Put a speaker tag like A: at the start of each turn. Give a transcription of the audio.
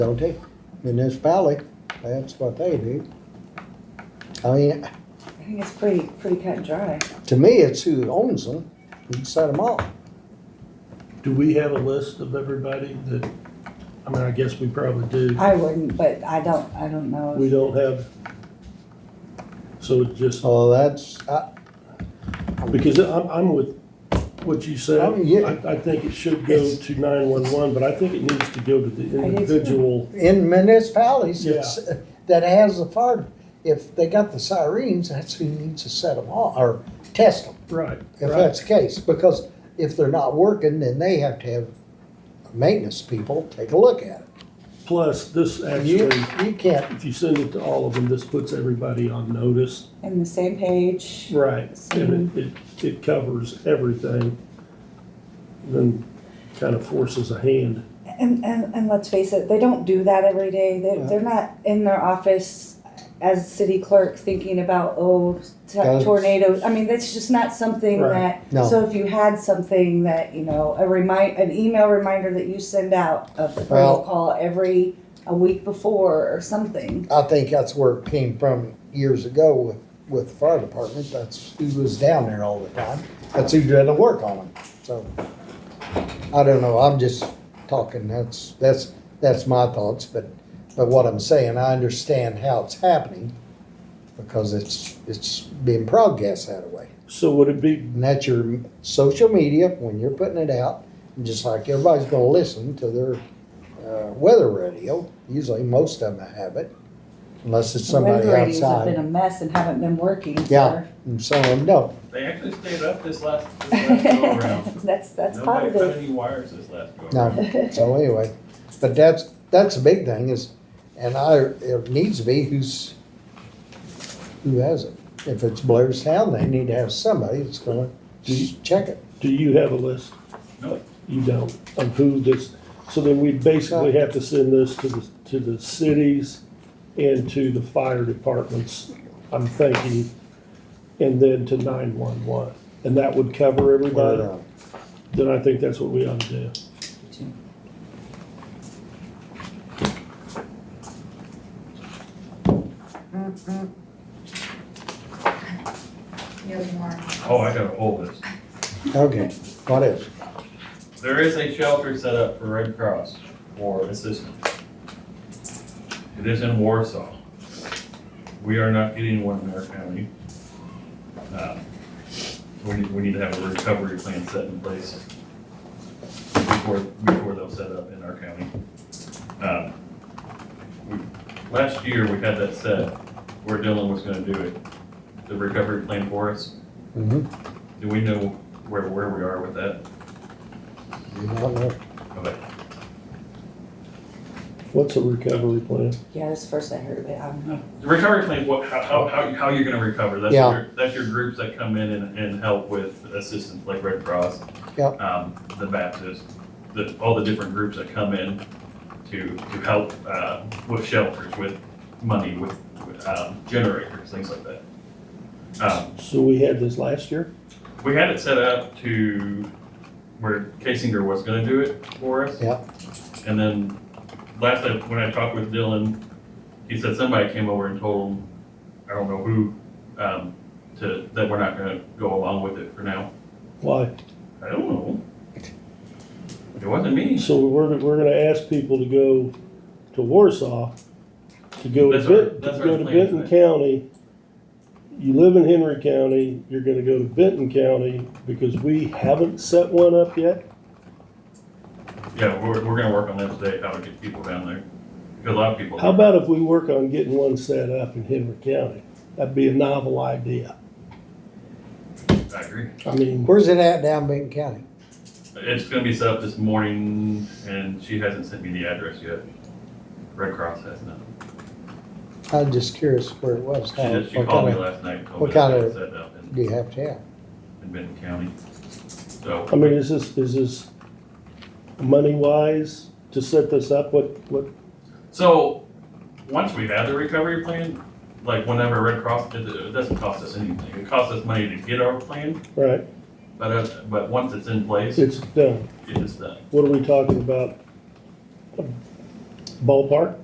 A: county, municipality, that's what they do. I mean,
B: I think it's pretty, pretty cut and dry.
A: to me, it's who owns them, who set them off.
C: Do we have a list of everybody that, I mean, I guess we probably do.
B: I wouldn't, but I don't, I don't know.
C: We don't have, so it just,
A: So that's, uh, I,
C: because I'm, I'm with what you said.
A: Oh, yeah.
C: I, I think it should go to nine-one-one, but I think it needs to go to the
B: too.
C: individual.
A: in municipalities, it's, that has the fire, if they got the sirens, that's who needs to set them off, or test them,
C: Right,
A: if
C: right.
A: that's the case. Because if they're not working, then they have to have maintenance people take a look at it.
C: Plus, this
A: And you,
C: actually,
A: you can't,
C: if you send it to all of them, this puts everybody on notice.
B: In the same page.
C: Right. And it, it, it covers everything. Then kind of forces a hand.
B: And, and, and let's face it, they don't do that every day. They,
A: Yeah.
B: they're not in their office as city clerk thinking about, oh, t-
A: That's-
B: tornadoes. I mean, that's just not something
C: Right.
B: that,
A: No.
B: so if you had something that, you know, a remind, an email reminder that you send out of the
A: Well-
B: protocol every, a week before or something.
A: I think that's where it came from years ago with, with the fire department, that's who was down there all the time. That's who did the work on them, so. I don't know, I'm just talking, that's, that's, that's my thoughts, but, but what I'm saying, I understand how it's happening. Because it's, it's being broadcast that way.
C: So would it be
A: And that's your social media, when you're putting it out, and just like everybody's gonna listen to their, uh, weather radio, usually most of them have it, unless it's somebody
B: Wind ratings have been
A: outside,
B: a mess and haven't been working
A: Yeah.
B: for.
A: and some of them don't.
D: They actually stayed up this last, this last go around.
B: That's, that's
D: Nobody cut
B: positive.
D: any wires this last go around.
A: No, so anyway, but that's, that's the big thing is, and I, it needs to be who's, who has it. If it's Blair's Town, they need to have somebody that's gonna just check it.
C: Do you have a list?
D: No.
C: You don't, of who this, so then we basically have to send this to the, to the cities and to the fire departments, I'm thinking, and then to nine-one-one, and that would cover everybody?
A: Or, uh,
C: Then I think that's what we ought to do.
E: Mm, You have more.
D: Oh, I got a whole list.
A: Okay, what is?
D: There is a shelter set up for Red Cross for assistance. It is in Warsaw. We are not getting one in our county. Uh, We need, we need to have a recovery plan set in place before, before they'll set up in our county. Um, we- Last year, we had that set where Dylan was gonna do it, the recovery plan for us.
A: Mm-hmm.
D: Do we know where, where we are with that? Okay.
C: What's a recovery plan?
B: Yeah, that's the first I heard of it. I'm
D: The recovery plan, what, how, how, how, how you're gonna recover, that's
A: Yeah.
D: your, that's your groups that come in and, and help with assistance, like Red Cross.
A: Yep.
D: Um, the Baptist, the, all the different groups that come in to, to help, uh, with shelters, with money, with, with, um, generators, things like that. Um,
C: So we had this last year?
D: we had it set up to where Casinger was gonna do it for us.
A: Yep.
D: And then last time, when I talked with Dylan, he said somebody came over and told him, I don't know who, um, to, that we're not gonna go along with it for now.
C: Why?
D: I don't know. It wasn't me.
C: So we're, we're gonna ask people to go to Warsaw, to go to
D: That's our-
C: Bit,
D: that's
C: to
D: our
C: go to
D: plan,
C: Benton
D: right?
C: County. You live in Henry County, you're gonna go to Benton County because we haven't set one up yet.
D: Yeah, we're, we're gonna work on that today, how to get people down there. Because a lot of people.
C: How about if we work on getting one set up in Henry County? That'd be a novel idea.
D: I agree.
C: I mean,
A: Where's it at down Benton County?
D: It's gonna be set up this morning and she hasn't sent me the address yet. Red Cross has not.
A: I'm just curious where it was.
D: She
C: Uh,
A: how-
D: just, she
A: what
D: called me
A: kinda-
D: last night and told
A: what
D: me that
A: kind
D: it
A: of-
D: was set up in,
A: Do you have to have?
D: in Benton County. So.
C: I mean, is this, is this money wise to set this up? What, what,
D: So, once we had the recovery plan, like whenever Red Cross did it, it doesn't cost us anything. It costs us money to get our plan,
C: right,
D: but, uh, but once it's in place, it
C: it's done.
D: is done.
C: What are we talking about? ballpark?